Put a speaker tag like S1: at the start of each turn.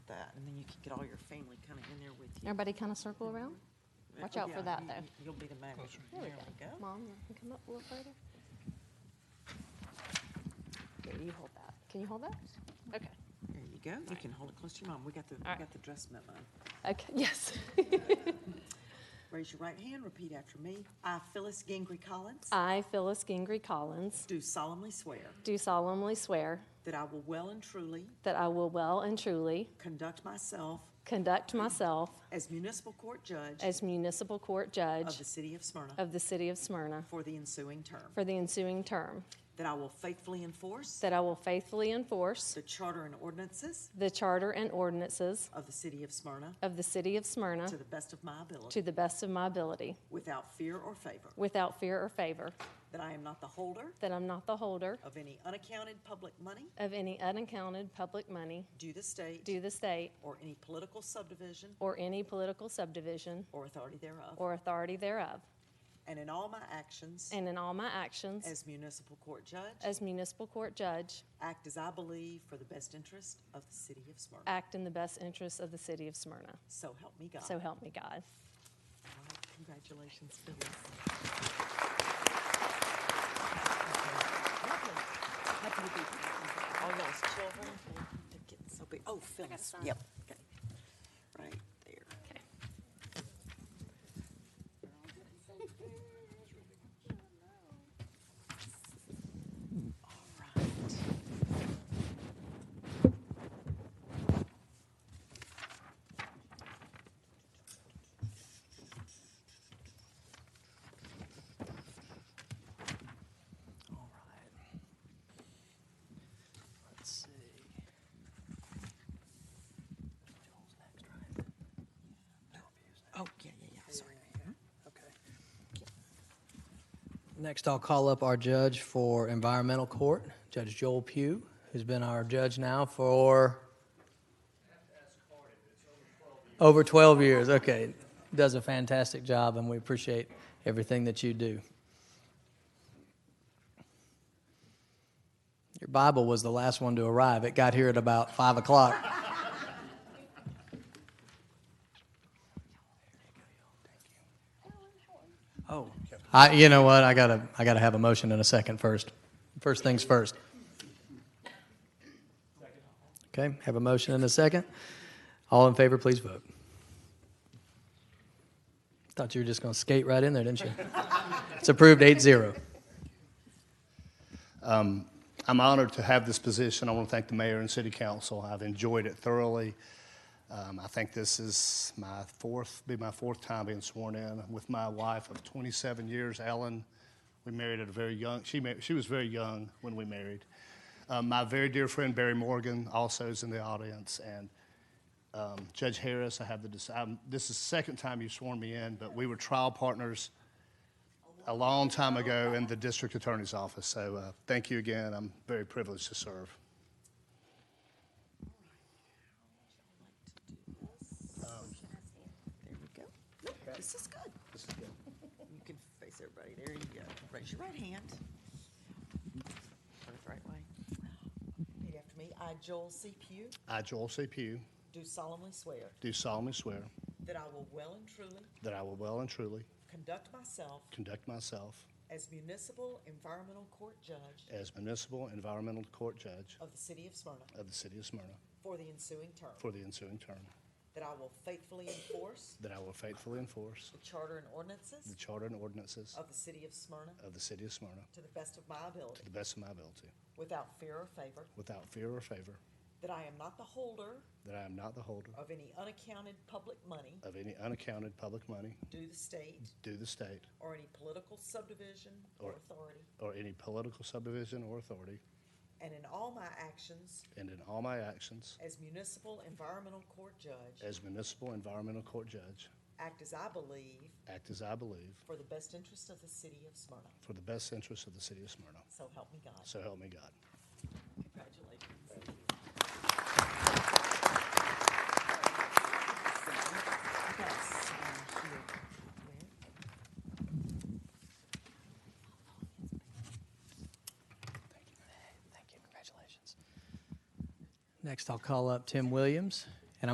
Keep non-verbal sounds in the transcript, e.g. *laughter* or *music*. S1: you could get all your family kind of in there with you. Oh,
S2: Everybody kind of circle around. Watch out for
S1: Yeah,
S2: that,
S1: you-
S2: though.
S1: you- You'll be the manager.
S2: There we go.
S1: There we go.
S2: Mom, you can come up a little further. Here, you hold that. Can you hold that? Okay.
S1: There you go. You can hold it close to your mom. We got the, we
S2: right.
S1: got the dress memo.
S2: Okay, *laughs* yes.
S1: Raise your right hand, repeat after me. I, Phyllis Gingrey Collins,
S2: I, Phyllis Gingrey Collins,
S1: do solemnly swear
S2: do solemnly swear
S1: that I will well and truly
S2: that I will well and truly
S1: conduct myself
S2: conduct myself
S1: as municipal court judge
S2: as municipal court
S1: of
S2: judge
S1: the city of Smyrna
S2: of the city of Smyrna
S1: for the ensuing term,
S2: for the ensuing term,
S1: that I will faithfully enforce
S2: that I will faithfully enforce
S1: the charter and ordinances
S2: the charter and ordinances
S1: of the city of Smyrna
S2: of the city of Smyrna
S1: to the best of my ability,
S2: to the best of my ability,
S1: without fear or favor,
S2: without fear or favor,
S1: that I am not the holder
S2: that I'm not the holder
S1: of any unaccounted public money
S2: of any unaccounted public money
S1: due the state
S2: due the state
S1: or any political subdivision
S2: or any political subdivision
S1: or authority thereof,
S2: or authority thereof,
S1: and in all my actions
S2: and in all my actions
S1: as municipal court judge,
S2: as municipal court judge,
S1: act as I believe for the best interest of the city of Smyrna.
S2: act in the best interests of the city of Smyrna.
S1: So help me God.
S2: So help me God.
S1: All right, Congratulations, Phyllis. Happy to be here. All those children, they're getting so big. Oh, Phyllis,
S2: sign.
S1: yep. okay. Right there. *laughs* All right. All right. Let's see. Joel's next, right? Oh, yeah, yeah, yeah, sorry.
S3: Okay. Next, I'll call up our judge for environmental court, Judge Joel Pugh, who's been our judge now for over 12 years. Okay. Does a fantastic job, and we appreciate everything that you do. Your Bible was the last one to arrive. It got here at about 5 o'clock. Oh, I, you know what? I gotta, I gotta have a motion in a second first. First things first. Okay, have a motion in a second. All in favor, please vote. Thought you were just gonna skate right in there, didn't you? It's approved eight zero.
S4: I'm honored to have this position. I want to thank the mayor and city council. I've enjoyed it thoroughly. Um, I think this is my fourth, be my fourth time being sworn in with my wife of 27 years, Ellen. We married at a very young. She mar- she was very young when we married. Um, my very dear friend Barry Morgan also is in the audience, and um, Judge Harris. I have the. dis- I'm, this is the second time you've sworn me in, but we were trial partners a long time ago in the district attorney's office. So uh, thank you again. I'm very privileged to serve.
S1: There we go. Nope, This is good. *laughs* You can face everybody. There you go. Raise your right hand. Turn it the right way. Repeat after me. I, Joel C. Pugh,
S4: I, Joel C. Pugh,
S1: do solemnly swear
S4: do solemnly swear
S1: that I will well and truly
S4: that I will well and truly
S1: conduct myself
S4: conduct myself
S1: as municipal environmental court judge
S4: as municipal environmental court judge
S1: of the city of Smyrna
S4: of the city of Smyrna
S1: for the ensuing term,
S4: for the ensuing term,
S1: that I will faithfully enforce
S4: that I will faithfully enforce
S1: the charter and
S4: the
S1: ordinances
S4: charter and ordinances
S1: of the city of Smyrna
S4: of the city of Smyrna
S1: to the best of my
S4: to
S1: ability,
S4: the best of my ability,
S1: without fear or favor,
S4: without fear or favor,
S1: that I am not the holder
S4: that I am not the holder
S1: of any unaccounted public money
S4: of any unaccounted public money
S1: due the state
S4: due the state
S1: or any political subdivision or
S4: Or-
S1: authority,
S4: or any political subdivision or authority,
S1: and in all my actions
S4: and in all my actions
S1: as municipal environmental court judge,
S4: As municipal environmental court judge,
S1: act as I believe
S4: act as I believe,
S1: for the best interest of the city of Smyrna.
S4: for the best interests of the city of Smyrna.
S1: So help me God.
S4: So help me God.
S1: Congratulations.
S3: Thank you, congratulations. Next, I'll call up Tim Williams,